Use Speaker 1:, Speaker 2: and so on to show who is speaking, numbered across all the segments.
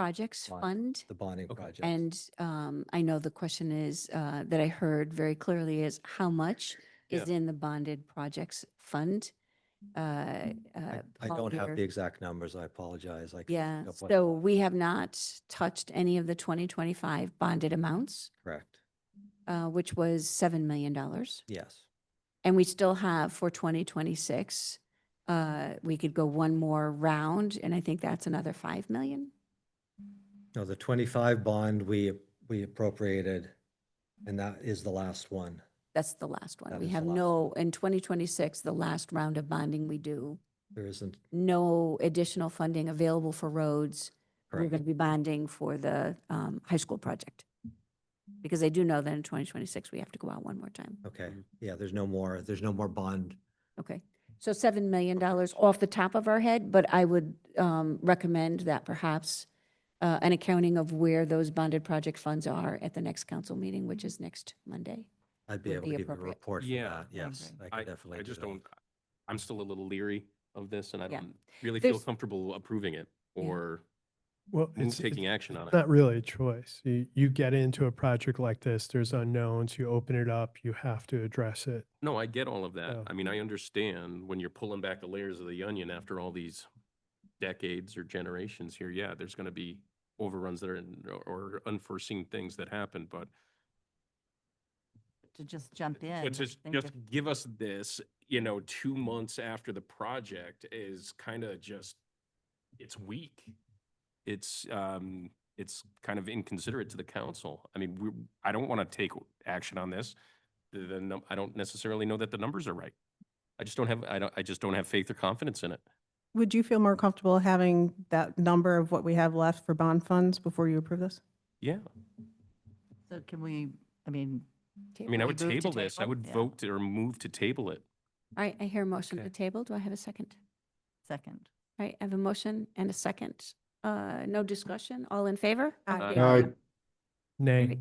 Speaker 1: Projects
Speaker 2: Bond.
Speaker 1: Fund.
Speaker 2: the bonding
Speaker 3: Okay.
Speaker 2: project.
Speaker 1: And um, I know the question is, uh, that I heard very clearly is how much is in the bonded projects fund? Uh, uh,
Speaker 2: Mm-hmm. I I
Speaker 1: Paul
Speaker 2: don't have the
Speaker 1: here.
Speaker 2: exact numbers. I apologize. I. couldn't
Speaker 1: Yeah,
Speaker 2: look up what-
Speaker 1: so we have not touched any of the 2025 bonded amounts,
Speaker 2: Correct.
Speaker 1: uh, which was $7 million.
Speaker 2: Yes.
Speaker 1: And we still have for 2026, uh, we could go one more round, and I think that's another 5 million.
Speaker 2: No, the twenty-five bond we, we appropriated, and that is the last one.
Speaker 1: That's the last one.
Speaker 2: That
Speaker 1: We
Speaker 2: is the
Speaker 1: have
Speaker 2: last
Speaker 1: no, in 2026, the last round of bonding we do,
Speaker 2: There isn't,
Speaker 1: no additional funding available for roads. We're
Speaker 2: correct.
Speaker 1: going to be bonding for the um, high school project. Because I do know that in 2026, we have to go out one more time.
Speaker 2: Okay,
Speaker 3: Mm-hmm.
Speaker 2: yeah, there's no more, there's no more bond.
Speaker 1: Okay. So $7 million off the top of our head, but I would um, recommend that perhaps uh, an accounting of where those bonded project funds are at the next council meeting, which is next Monday.
Speaker 2: I'd be
Speaker 1: Would
Speaker 2: able
Speaker 1: be
Speaker 2: to give you a
Speaker 1: appropriate.
Speaker 2: report for
Speaker 3: Yeah.
Speaker 2: that, yes.
Speaker 1: Okay.
Speaker 2: I
Speaker 3: I,
Speaker 2: could definitely
Speaker 3: I
Speaker 2: do
Speaker 3: just
Speaker 2: that.
Speaker 3: don't, I'm still a little leery of this and I
Speaker 1: Yeah.
Speaker 3: don't really feel
Speaker 1: There's-
Speaker 3: comfortable approving it
Speaker 1: Yeah.
Speaker 3: or
Speaker 4: Well,
Speaker 3: move-
Speaker 4: it's,
Speaker 3: taking
Speaker 4: it's
Speaker 3: action on it.
Speaker 4: not really a choice. You, you get into a project like this, there's unknowns, you open it up, you have to address it.
Speaker 3: No, I get all of that.
Speaker 4: Yeah.
Speaker 3: I mean, I understand when you're pulling back the layers of the onion after all these decades or generations here, yeah, there's going to be overruns that are, in- or unforeseen things that happen, but
Speaker 5: to just jump in.
Speaker 3: But
Speaker 5: I
Speaker 3: just,
Speaker 5: think
Speaker 3: just
Speaker 5: if-
Speaker 3: give us this, you know, two months after the project is kind of just, it's weak. It's, um, it's kind of inconsiderate to the council. I mean, we, I don't want to take action on this. The, the num- I don't necessarily know that the numbers are right. I just don't have, I don't, I just don't have faith or confidence in it.
Speaker 6: Would you feel more comfortable having that number of what we have left for bond funds before you approve this?
Speaker 3: Yeah,
Speaker 5: So can we, I mean.
Speaker 3: I mean, I
Speaker 5: we
Speaker 3: would
Speaker 5: move to
Speaker 3: table this. I would
Speaker 5: Yeah,
Speaker 3: vote to- or move to table it.
Speaker 1: All right, I hear a motion
Speaker 3: Okay.
Speaker 1: to table. Do I have a second?
Speaker 5: Second.
Speaker 1: All right, I have a motion and a second. Uh, no discussion. All in favor?
Speaker 6: Aye.
Speaker 3: Aye.
Speaker 4: Nay.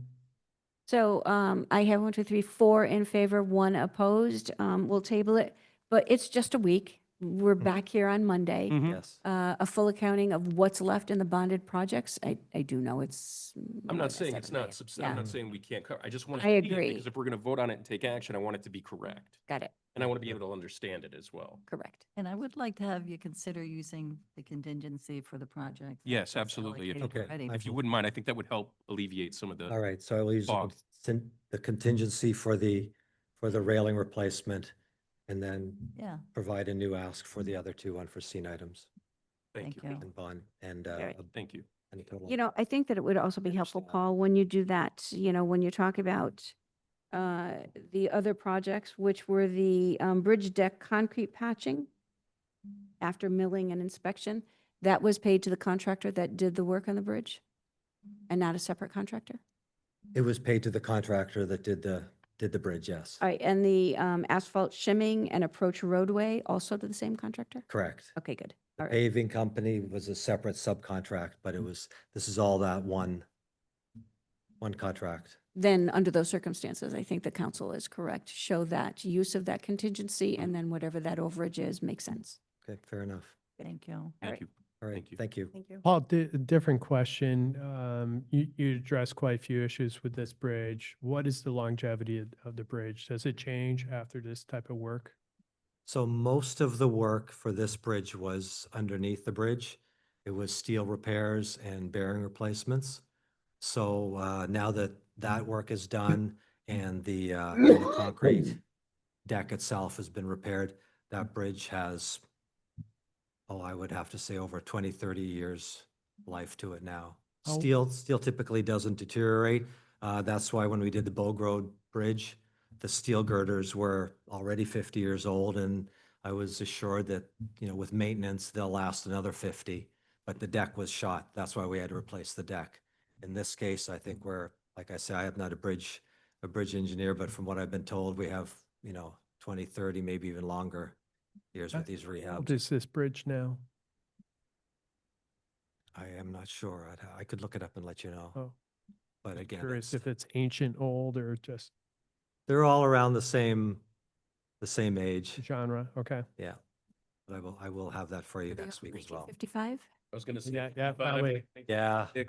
Speaker 1: So, um, I have one, two, three, four in favor, one opposed. Um, we'll table it, but it's just a week.
Speaker 3: Mm-hmm.
Speaker 1: We're back here on Monday.
Speaker 3: Mhm.
Speaker 2: Yes,
Speaker 1: Uh, a full accounting of what's left in the bonded projects. I, I do know it's.
Speaker 3: I'm
Speaker 1: more
Speaker 3: not
Speaker 1: than
Speaker 3: saying it's
Speaker 1: seven million.
Speaker 3: not, subs- I'm
Speaker 1: Yeah,
Speaker 3: not saying we can't cover, I just want to.
Speaker 1: I
Speaker 3: see it,
Speaker 1: agree.
Speaker 3: Because if we're going to vote on it and take action, I want it to be correct.
Speaker 1: got it.
Speaker 3: And I want to be able to understand it as well.
Speaker 1: Correct.
Speaker 5: And I would like to have you consider using the contingency for the project. that
Speaker 3: Yes,
Speaker 5: was
Speaker 3: absolutely. If-
Speaker 5: allocated
Speaker 2: Okay.
Speaker 5: already.
Speaker 3: If you wouldn't mind, I think that would help alleviate some of
Speaker 2: all
Speaker 3: the,
Speaker 2: right, so I will use the
Speaker 3: Bond.
Speaker 2: con- the contingency for the, for the railing replacement, and then
Speaker 5: Yeah,
Speaker 2: provide a new ask for
Speaker 3: Mm-hmm.
Speaker 2: the other two unforeseen items
Speaker 3: thank
Speaker 5: thank
Speaker 3: you.
Speaker 5: you.
Speaker 2: and bond and. uh,
Speaker 1: Alright.
Speaker 3: Thank you.
Speaker 2: and total.
Speaker 1: You know, I think that it would also be helpful,
Speaker 2: Understand.
Speaker 1: Paul, when you do that, you know, when you talk about uh, the other projects, which were the um, bridge deck concrete patching after milling and inspection, that was paid to the contractor that did the work on the bridge and not a separate contractor.
Speaker 2: It was paid to the contractor that did the, did the bridge, yes.
Speaker 1: All right, and the um, asphalt shimming and approach roadway also to the same contractor?
Speaker 2: Correct.
Speaker 1: Okay, good.
Speaker 2: The
Speaker 1: All right. Mm.
Speaker 2: paving company was a separate subcontract, but it was, this is all that one, one contract.
Speaker 1: Then, under those circumstances, I think the council is correct. Show that use of that contingency and then whatever that overage is makes sense.
Speaker 2: Okay, fair enough.
Speaker 5: thank you.
Speaker 3: Thank you.
Speaker 2: All right,
Speaker 3: Thank you.
Speaker 2: thank you.
Speaker 6: Thank you.
Speaker 4: Paul, di- different question. Um, you, you addressed quite a few issues with this bridge. What is the longevity of- of the bridge? Does it change after this type of work?
Speaker 2: So most of the work for this bridge was underneath the bridge. It was steel repairs and bearing replacements. So uh, now that that work is done and the uh, and the concrete deck itself has been repaired, that bridge has, oh, I would have to say over 20, 30 years life to it now.
Speaker 4: How-
Speaker 2: Steel, steel typically doesn't deteriorate. Uh, That's why when we did the Bogue Road Bridge, the steel girders were already 50 years old and I was assured that, you know, with maintenance, they'll last another 50. But the deck was shot. That's why we had to replace the deck. In this case, I think we're, like I say, I am not a bridge, a bridge engineer, but from what I've been told, we have, you know, 20, 30, maybe even longer years with
Speaker 4: Uh,
Speaker 2: these
Speaker 4: How
Speaker 2: rehabs.
Speaker 4: old is this bridge now?
Speaker 2: I am not sure. I'd, ha- I could look it up and let you know.
Speaker 4: Oh.
Speaker 2: But again,
Speaker 4: Curious
Speaker 2: it's-
Speaker 4: if it's ancient, old, or just
Speaker 2: they're all around the same, the same age.
Speaker 4: genre. Okay.
Speaker 2: Yeah. But I will, I will have that for you next week as well.
Speaker 1: 55?
Speaker 4: was gonna say.
Speaker 3: Yeah, yeah,
Speaker 4: but I
Speaker 3: that way.
Speaker 4: think-
Speaker 2: Yeah.